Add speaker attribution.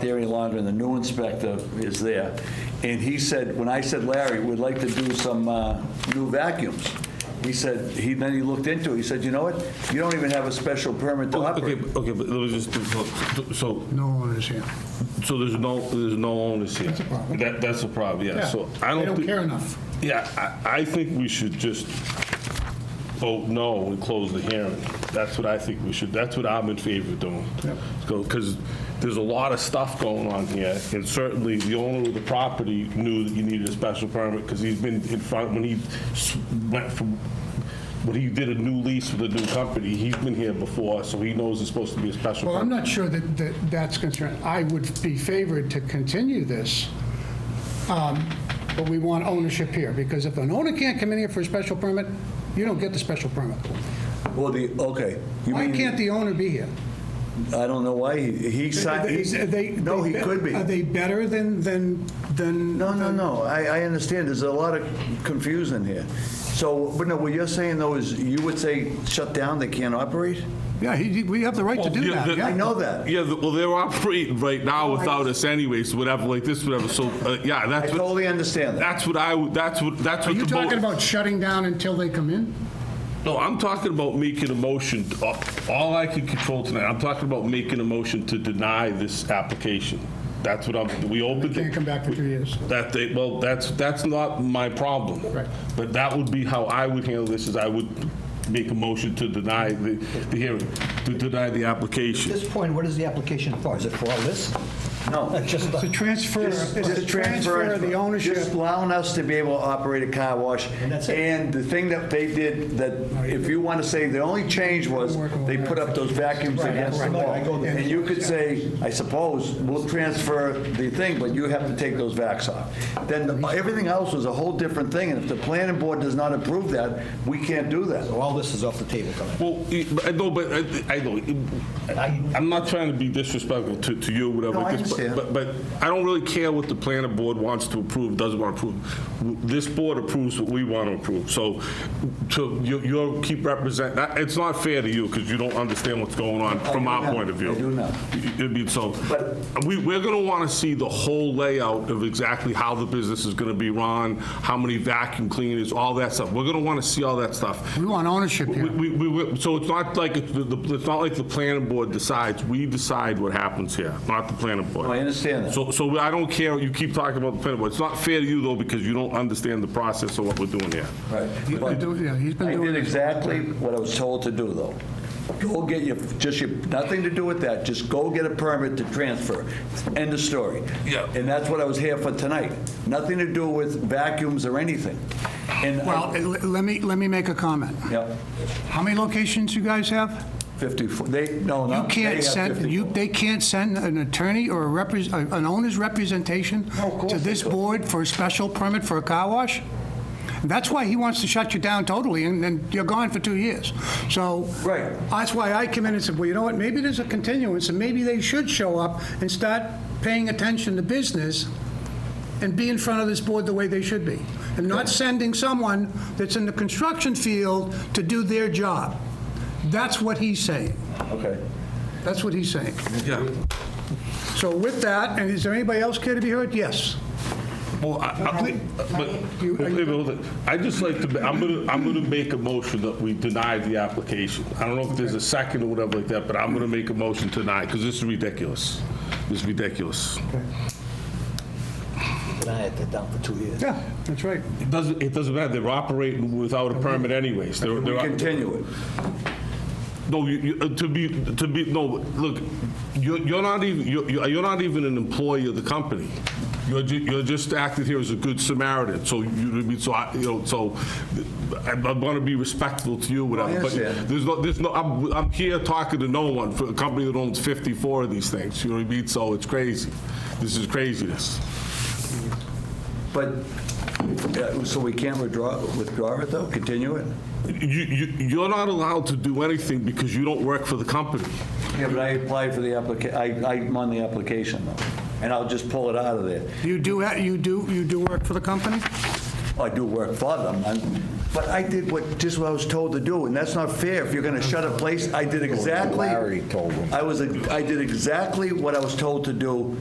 Speaker 1: there any longer, and the new inspector is there. And he said, when I said, Larry, we'd like to do some uh, new vacuums, he said, he, then he looked into it, he said, you know what? You don't even have a special permit to
Speaker 2: Oh, Okay,
Speaker 1: operate.
Speaker 2: but- okay, but let me just, so- so,
Speaker 3: No owners here.
Speaker 2: so there's no, there's no owners here.
Speaker 3: That's a problem.
Speaker 2: That, that's a problem, yeah, so I don't.
Speaker 3: They don't
Speaker 2: thi-
Speaker 3: care enough.
Speaker 2: Yeah, I, I think we should just vote no and close the hearing. That's what I think we should, that's what I'm in favor of doing.
Speaker 3: Yep.
Speaker 2: Because there's a lot of stuff going on here, and certainly the owner of the property knew that you needed a special permit, because he's been in front, when he s- went from, when he did a new lease with a new company, he's been here before, so he knows it's supposed to be a special
Speaker 3: Well,
Speaker 2: permit.
Speaker 3: I'm not sure that, that that's concerned. I would be favored to continue this, um, but we want ownership here, because if an owner can't come in here for a special permit, you don't get the special permit.
Speaker 1: Well, the, okay. You
Speaker 3: Why
Speaker 1: mean-
Speaker 3: can't the owner be here?
Speaker 1: I don't know why, he, he signed,
Speaker 3: Is- are they-
Speaker 1: he- no, he
Speaker 3: they-
Speaker 1: could be.
Speaker 3: Are they better than, than, than?
Speaker 1: No, no, no, I, I understand, there's a lot of confusion here. So, but no, what you're saying though is, you would say shut down, they can't operate?
Speaker 3: Yeah, he, we have the right to
Speaker 2: Well,
Speaker 3: do
Speaker 2: yeah,
Speaker 3: that,
Speaker 2: the-
Speaker 1: I
Speaker 3: yeah.
Speaker 1: know that.
Speaker 2: Yeah, the- well, they're operating right
Speaker 3: Oh,
Speaker 2: now without us anyways, whatever, like this, whatever, so, uh, yeah,
Speaker 1: I
Speaker 2: that's what,
Speaker 1: totally understand that.
Speaker 2: that's what I, would- that's what, that's
Speaker 3: Are
Speaker 2: what the
Speaker 3: you
Speaker 2: vote.
Speaker 3: talking about shutting down until they come in?
Speaker 2: No, I'm talking about making a motion, uh, all I can control tonight, I'm talking about making a motion to deny this application. That's what I'm, we opened
Speaker 3: Can't
Speaker 2: it,
Speaker 3: come back for two years.
Speaker 2: that they, well, that's, that's not my problem.
Speaker 3: Right.
Speaker 2: But that would be how I would handle this, is I would make a motion to deny the, the hearing, to deny the
Speaker 4: At
Speaker 2: application.
Speaker 4: this point, what is the application for? Is it for all this?
Speaker 1: No.
Speaker 4: It's just,
Speaker 3: It's a transfer, it's a transfer of the
Speaker 1: Just
Speaker 3: ownership.
Speaker 1: allowing us to be able to operate a car wash.
Speaker 4: And that's it.
Speaker 1: And the thing that they did, that if you want to say, the only change was they put up those vacuums
Speaker 4: Right,
Speaker 1: against the
Speaker 4: right, I go
Speaker 1: wall.
Speaker 4: there.
Speaker 1: And you could say, I suppose, we'll transfer the thing, but you have to take those vacs off. Then the- everything else was a whole different thing, and if the planning board does not approve that, we can't do that.
Speaker 4: all this is off the table tonight.
Speaker 2: Well, I- but I know, but uh, I, I know, I- I'm not trying to be disrespectful to, to you, whatever.
Speaker 1: No, I
Speaker 2: this- but-
Speaker 1: understand.
Speaker 2: But, but I don't really care what the planning board wants to approve, doesn't want to approve. This board approves what we want to approve, so to, you- you'll keep representing, it's not fair to you, because you don't understand what's going on from
Speaker 1: do
Speaker 2: our
Speaker 1: now.
Speaker 2: point of view.
Speaker 1: I do now.
Speaker 2: I mean, so,
Speaker 1: But-
Speaker 2: we, we're gonna wanna see the whole layout of exactly how the business is gonna be run, how many vacuum cleaners, all that stuff. We're gonna wanna see all that stuff.
Speaker 3: We want ownership
Speaker 2: We-
Speaker 3: here.
Speaker 2: We, we, we- so it's not like, it- the- the- it's not like the planning board decides, we decide what happens here, not the planning
Speaker 1: Oh, I
Speaker 2: board.
Speaker 1: understand that.
Speaker 2: So, so I don't care, you keep talking about the planning board, it's not fair to you though, because you don't understand the process of what we're doing here.
Speaker 1: Right.
Speaker 3: He's been
Speaker 1: But-
Speaker 3: doing- Yeah, he's been
Speaker 1: I
Speaker 3: doing
Speaker 1: did
Speaker 3: this.
Speaker 1: exactly what I was told to do, though. Go get your, just your, nothing to do with that, just go get a permit to transfer. End of story.
Speaker 2: Yeah.
Speaker 1: And that's what I was here for tonight. Nothing to do with vacuums or anything. And, I-
Speaker 3: Well, eh, le- let me, let me make a comment.
Speaker 1: Yep,
Speaker 3: How many locations you guys have?
Speaker 1: 54, they, no,
Speaker 3: You
Speaker 1: not.
Speaker 3: can't send, you, they can't send an attorney or a repres, a- an owner's representation to this board for a special permit for a car wash? That's why he wants to shut you down totally, and then you're gone for two years. So.
Speaker 1: Right.
Speaker 3: That's why I come in and said, well, you know what, maybe there's a continuance, and maybe they should show up and start paying attention to business and be in front of this board the way they should be, and not sending someone that's in the construction field to do their job. That's what he's saying.
Speaker 1: Okay.
Speaker 3: That's what he's saying.
Speaker 2: Yeah.
Speaker 3: So with that, and is there anybody else care to be heard? Yes.
Speaker 2: Well, I, I, but,
Speaker 3: You- are you-
Speaker 2: wait, hold it. I just like to, ma- I'm gonna, I'm gonna make a motion that we deny the application. I don't know if there's a second or whatever like that, but I'm gonna make a motion to deny, because this is ridiculous. This is ridiculous.
Speaker 4: Deny it, they're down for two years.
Speaker 3: Yeah, that's right.
Speaker 2: It doesn't, it doesn't matter, they're operating without a permit anyways. They're,
Speaker 1: We
Speaker 2: they're,
Speaker 1: continue it.
Speaker 2: no, you, you, uh, to be, to be, no, look, you're, you're not even, you're, you're you're not even an employee of the company. You're, ju- you're just acting here as a good Samaritan, so you, I mean, so I, you know, so I, I wanna be respectful to you, whatever. but
Speaker 1: understand.
Speaker 2: There's no, there's no, I'm, I'm here talking to no one for a company that owns fifty-four of these things, you know what I mean? So it's crazy. This is craziness.
Speaker 1: But, uh, so we can't withdraw, withdraw it, though? Continue it?
Speaker 2: You, you, you're not allowed to do anything because you don't work for the company.
Speaker 1: Yeah, but I applied for the applica, I, I'm on the application, though. And I'll just pull it out of there.
Speaker 3: You do, ha- you do, you do work for the company?
Speaker 1: I do work for them, and- but I did what, just what I was told to do, and that's not fair. If you're going to shut a place, I did exactly.
Speaker 5: Larry told him.
Speaker 1: I was, I did exactly what I was told to do